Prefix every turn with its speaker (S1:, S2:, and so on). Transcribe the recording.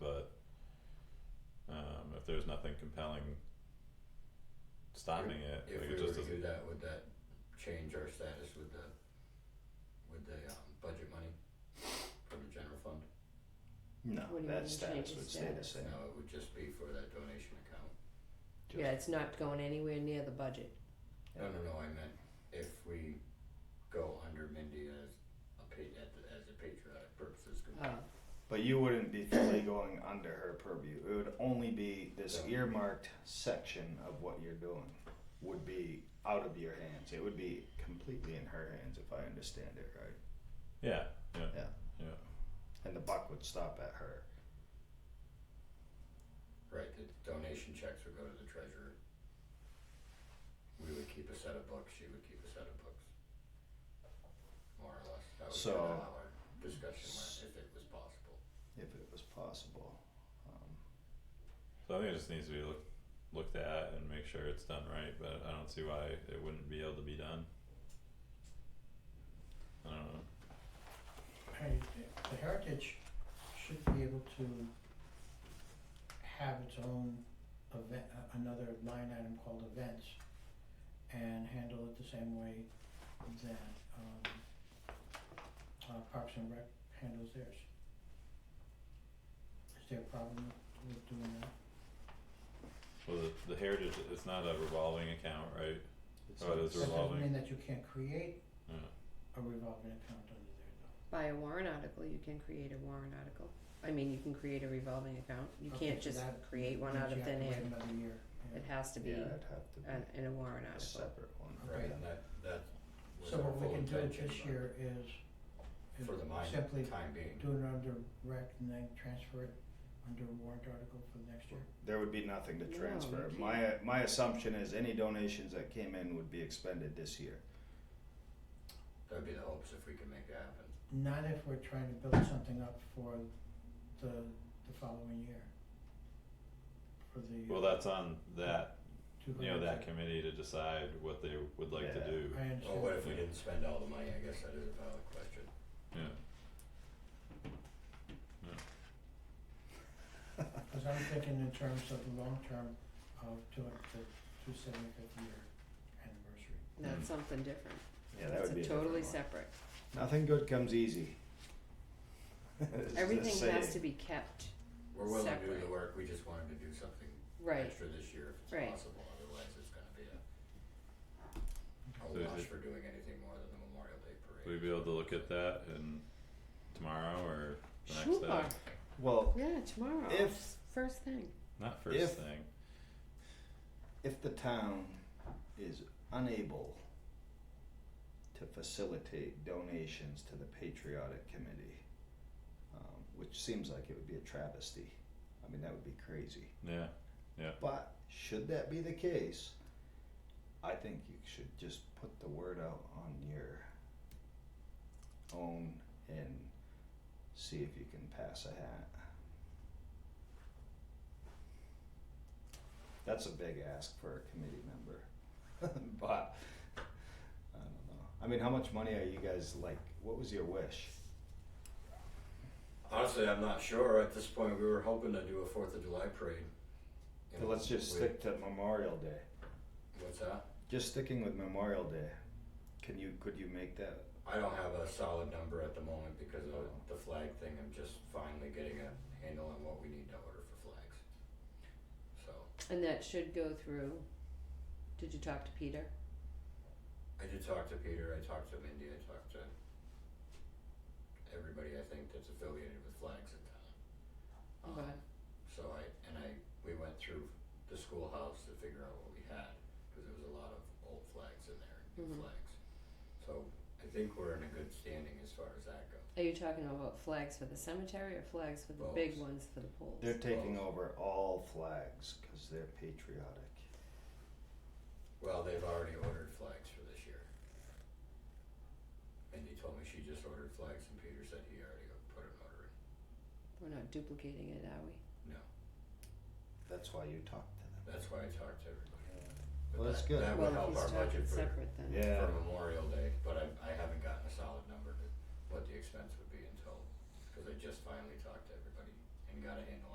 S1: um, nothing compelling stopping it.
S2: If
S1: like
S2: we
S1: it
S2: were
S1: just
S2: to
S1: doesn't.
S2: do that, would that change our status with the, with the, um, budget money from the general fund?
S3: No,
S4: What do you mean
S3: that
S4: change
S3: status
S4: the
S3: would stay the
S4: status?
S3: same.
S2: No, it would just be for that donation account.
S4: Yeah, it's not going anywhere near the budget.
S2: No, no, no, I meant if we go under Mindy as a pa- at the, as a patriotic purposes
S4: Oh,
S3: Ah.
S2: committee.
S3: But you wouldn't be fully going under her purview. It would only be this
S2: Yeah.
S3: earmarked section of what you're doing would be out of your hands. It would be completely in her hands if I understand it right.
S1: Yeah, yeah,
S3: Yeah.
S1: yeah.
S3: And the buck would stop at her.
S2: Right, the donation checks would go to the treasurer. We would keep a set of books, she would keep a set of books. More or less, that was
S3: So-
S2: kind of how our discussion went, if it was possible.
S3: If it was possible. Um,
S1: So I think it just needs to be looked looked at and make sure it's done right. But I don't see why it wouldn't be able to be done. I don't know.
S5: Hey, the Heritage should be able to have its own event, a- another line item called events and handle it the same way that um uh Parks and Rec handles theirs. Is there a problem with doing that?
S1: Well, the, the heritage it's not a revolving account, right?
S3: it's
S1: Oh, it is
S3: it's-
S5: That doesn't
S1: revolving.
S5: mean that you can't create
S1: Yeah.
S5: a revolving account under there though.
S4: by a warrant article, you can create a warrant article. I mean, you can create a revolving account. You
S5: Okay,
S4: can't
S5: so
S4: just
S5: that
S4: create one
S5: means
S4: out of
S5: you have
S4: thin
S5: to wait
S4: air.
S5: Another year, yeah.
S4: It has to be
S3: yeah, it'd have to be
S4: an, in a warrant
S3: a
S4: article.
S3: separate one.
S5: Okay.
S2: Right, and that, that was
S5: So
S2: our
S5: what we
S2: full
S5: can do
S2: intention,
S5: this
S2: but
S5: year is, is
S2: For the mine,
S5: simply
S2: time being,
S5: do it under rec and then transfer it under warrant article for the next year.
S3: There would be nothing to
S4: No,
S3: transfer.
S4: you
S3: My my assumption is any donations that came in would be expended this year.
S2: that'd be the hopes if we can make it happen.
S5: Not if we're trying to build something up for the, the following year. For the. uh,
S1: Well, that's on that
S5: two
S1: you know
S5: hundred.
S1: that committee to decide what they would like
S3: Yeah.
S1: to do.
S5: I
S2: Well, what
S5: understand,
S2: if we didn't spend all the money, I guess that is a valid question.
S1: Yeah.
S5: Uh, cause I'm thinking in terms of the long term of doing the two seventy-fifth year anniversary.
S4: That's something different.
S3: Mm-hmm. Yeah, that
S4: That's
S3: would be
S4: a
S3: a
S4: totally
S3: different one.
S4: separate.
S3: Nothing good comes easy. It's the
S4: Everything has
S3: saying.
S4: to be kept
S2: We're willing to do the
S4: Separate.
S2: work, we just wanted to do something
S4: right.
S2: extra this year if
S4: Right.
S2: it's possible, otherwise it's gonna be a a
S1: So is
S2: wash
S1: it-
S2: for doing anything more than the Memorial Day
S1: We'd
S2: parade.
S1: be able to look at that and tomorrow or the next
S4: Sure.
S1: day.
S3: Well,
S4: Yeah, tomorrow.
S3: If-
S4: first thing.
S1: Not first
S3: If-
S1: thing.
S3: if the town is unable to facilitate donations to the Patriotic Committee, um, which seems like it would be a travesty. I mean, that would be crazy.
S1: Yeah.
S3: But should that be the case, I think you should just put the word out on your own and see if you can pass a hat. That's a big ask for a committee member. but I don't know. I mean, how much money are you guys like? What was your wish?
S2: Honestly, I'm not sure, at this point, we were hoping to do a Fourth of July parade. you
S3: So
S2: know,
S3: let's just
S2: with-
S3: stick to Memorial Day.
S2: What's that?
S3: Just sticking with Memorial Day. Can you could you make that
S2: I don't have a solid number at the moment because of the flag thing, I'm just finally getting a handle on what we need to order for flags. So,
S4: And that should go through. Did you talk to Peter?
S2: I did talk to Peter, I talked to Mindy, I talked to everybody I think that's affiliated with flags in town. Um,
S3: Uh-huh.
S4: Okay.
S2: So I, and I, we went through the schoolhouse to figure out what we had, cause there was a lot of old flags in there, new
S4: Mhm.
S2: flags. So I think we're in a good standing as far as that goes.
S4: Are you talking about flags for the cemetery or flags for the big
S2: Poles.
S4: ones for the poles?
S3: They're taking over all flags because they're patriotic.
S2: Well, they've already ordered flags for this year. Mindy told me she just ordered flags and Peter said he already put an order in.
S4: We're not duplicating it, are we?
S2: No,
S3: That's why you talk to
S2: that's why I talked to everybody. But
S3: Well, that's
S2: that-
S3: good.
S2: That would help
S4: Well, if
S2: our
S4: he's talking
S2: budget for
S4: separate then.
S3: them. Yeah.
S2: for Memorial Day, but I, I haven't gotten a solid number to what the expense would be until, cause I just finally talked to everybody and got a handle